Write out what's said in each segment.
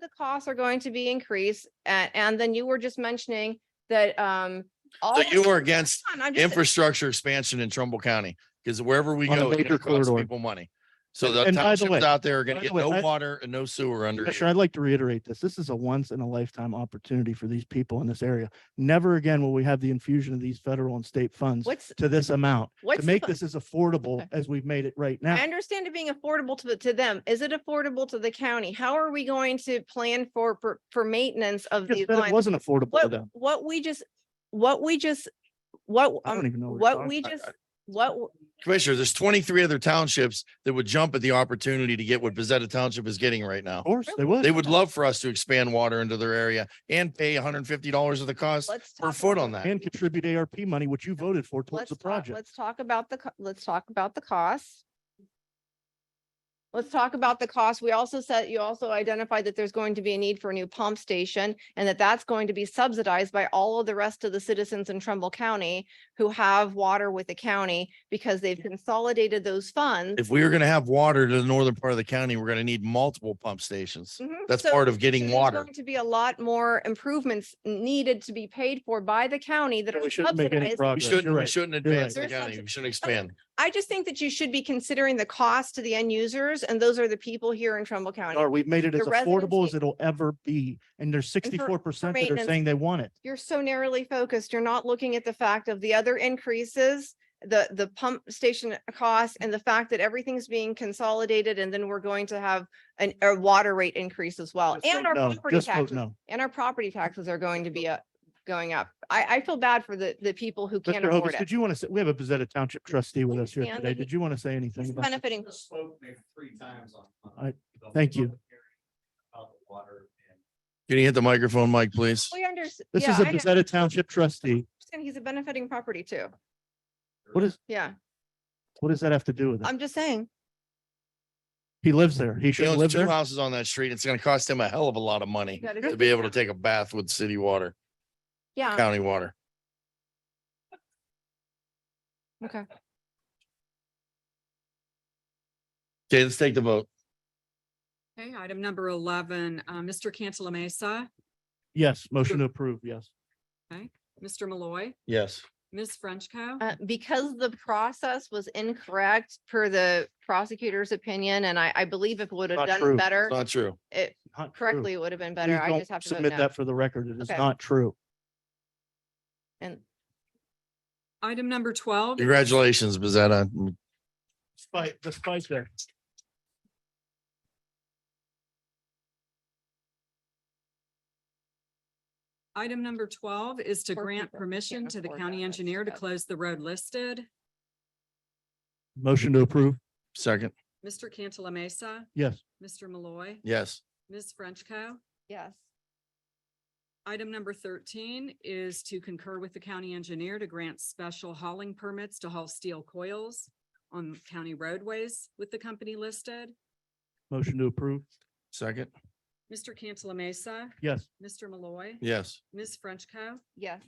the costs are going to be increased. And, and then you were just mentioning that, um. all So the- you were against Hold on, I'm just- infrastructure expansion in Trumble County, because wherever we On a go, it major costs corridor. people money. So the And by the townships way- out there are gonna by the get way, no I- water and no sewer under Commissioner, you. I'd like to reiterate this. This is a once in a lifetime opportunity for these people in this area. Never again will we have the infusion of these federal and state funds What's, to this amount, to what's, the make fu- this as affordable Okay. as we've made it right I now. understand it being affordable to, the- to them. Is it affordable to the county? How are we going to plan for, for, for maintenance of Just these that It lines? wasn't affordable to What, them. what we just, what we just, what, I don't um, even know. you're what talking we about. just, what, w- Commissioner, there's twenty-three other townships that would jump at the opportunity to get what Bezetta Township is getting right now. Of course, they would. They would love for us to expand water into their area and pay hundred and fifty dollars of the cost let's. per talk foot about- on that. And contribute ARP money, which you voted for Let's towards the talk, project. let's talk about the, co- let's talk about the costs. Let's talk about the cost. We also said, you also identified that there's going to be a need for a new pump station and that that's going to be subsidized by all of the rest of the citizens in Trumbull County who have water with the county because they've consolidated those funds. If we are gonna have water to the northern part of the county, we're gonna need multiple pump stations. Mhm. That's So- part of so getting there's water. going To be a lot more improvements needed to be paid for by the county that And are We shouldn't make any subsidized We progress. You're shouldn't, we right. shouldn't You're advance right. the county. We shouldn't expand. I just think that you should be considering the cost to the end users, and those are the people here in Trumbull County. Or we've made it as The residents affordable as need- it'll ever be. And there's sixty-four percent that are maintenance. saying they want it. You're so narrowly focused. You're not looking at the fact of the other increases, the, the pump station costs, and the fact that everything's being consolidated, and then we're going to have an, a water rate increase as well, Just and vote our no. property Just vote taxes, no. and our property taxes are going to be up, going up. I, I feel bad for the, the people who can't Mr. afford Hovis, did it. you want to say, we have a Bezetta Township trustee with us here Understand today. that he- Did you want to say anything? It's about this? benefiting, Spoke maybe three times on. on Alright, the thank you. public hearing About the water and Can you hit the microphone, Mike, please? we understand. This is a Bezetta Township trustee. He's a benefiting property too. What is, Yeah, what does that have to do with it? I'm just saying. He lives there. He He should live owns two there. houses on that street. It's gonna cost him a hell of a lot of money You gotta to do- be able to take a bath with city water, Yeah. county water. Okay. Okay, let's take the vote. Okay, item number eleven, uh, Mr. Cantala Mesa, Yes, motion to approve, yes. Mr. Malloy, Yes. Ms. Frenchco. Uh, because the process was incorrect per the prosecutor's opinion, and I, I believe if it would have Not done true. better, It's not true. it Not true. correctly, it would have been Please better. I don't just have to vote Submit no. that for the record. It is Okay. not true. And Item number twelve, Congratulations, Bezetta. Despite, despite that. item number twelve is to Poor grant people who permission can't to the afford county that, that's engineer to bad. close the road listed. Motion to approve, Second, Mr. Cantala Mesa, yes. Mr. Malloy, yes. Ms. Frenchco. yes, Item number thirteen is to concur with the county engineer to grant special hauling permits to haul steel coils on county roadways with the company listed. Motion to approve, Second, Mr. Cantala Mesa, yes. Mr. Malloy, yes. Ms. Frenchco. yes.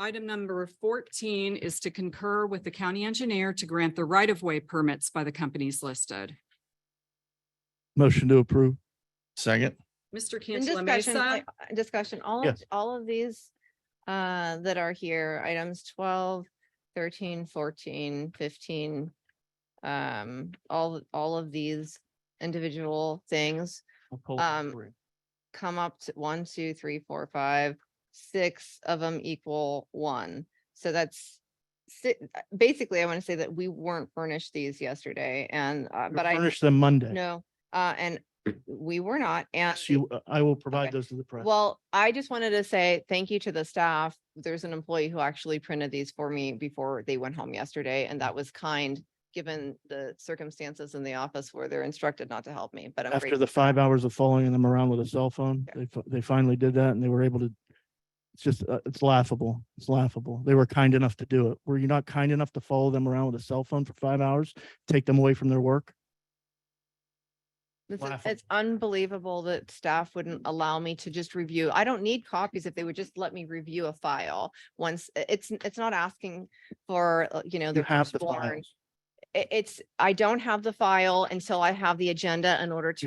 Item number fourteen is to concur with the county engineer to grant the right-of-way permits by the companies listed. Motion to approve, Um, Second, Mister In Cantala discussion, I- Mesa, I- discussion, all, of Yes. all of these uh, that are here, items 12, 13, 14, 15, um, all, all of these individual things I'll call it Um, three. come up to one, two, three, four, five, six of them equal one. So that's si- uh, basically, I want to say that we weren't furnished these yesterday and, uh, You'll but I Furnish them Monday. know, uh, and we were not. And Yes, you, uh, I will Okay. provide those to the press. well, I just wanted to say thank you to the staff. There's an employee who actually printed these for me before they went home yesterday, and that was kind, given the circumstances in the office where they're instructed not to help me, but I'm After grateful. the five hours of following them around with a cell phone, Yeah. they, fi- they finally did that and they were able to. It's just, uh, it's laughable. It's laughable. They were kind enough to do it. Were you not kind enough to follow them around with a cell phone for five hours? Take them away from their work? This is- It's laughable. unbelievable that staff wouldn't allow me to just review. I don't need copies if they would just let me review a file once. i- It's, it's not asking for, uh, you know, You the have the firstborn. files. i- it's, I don't have the file until I have the agenda in order to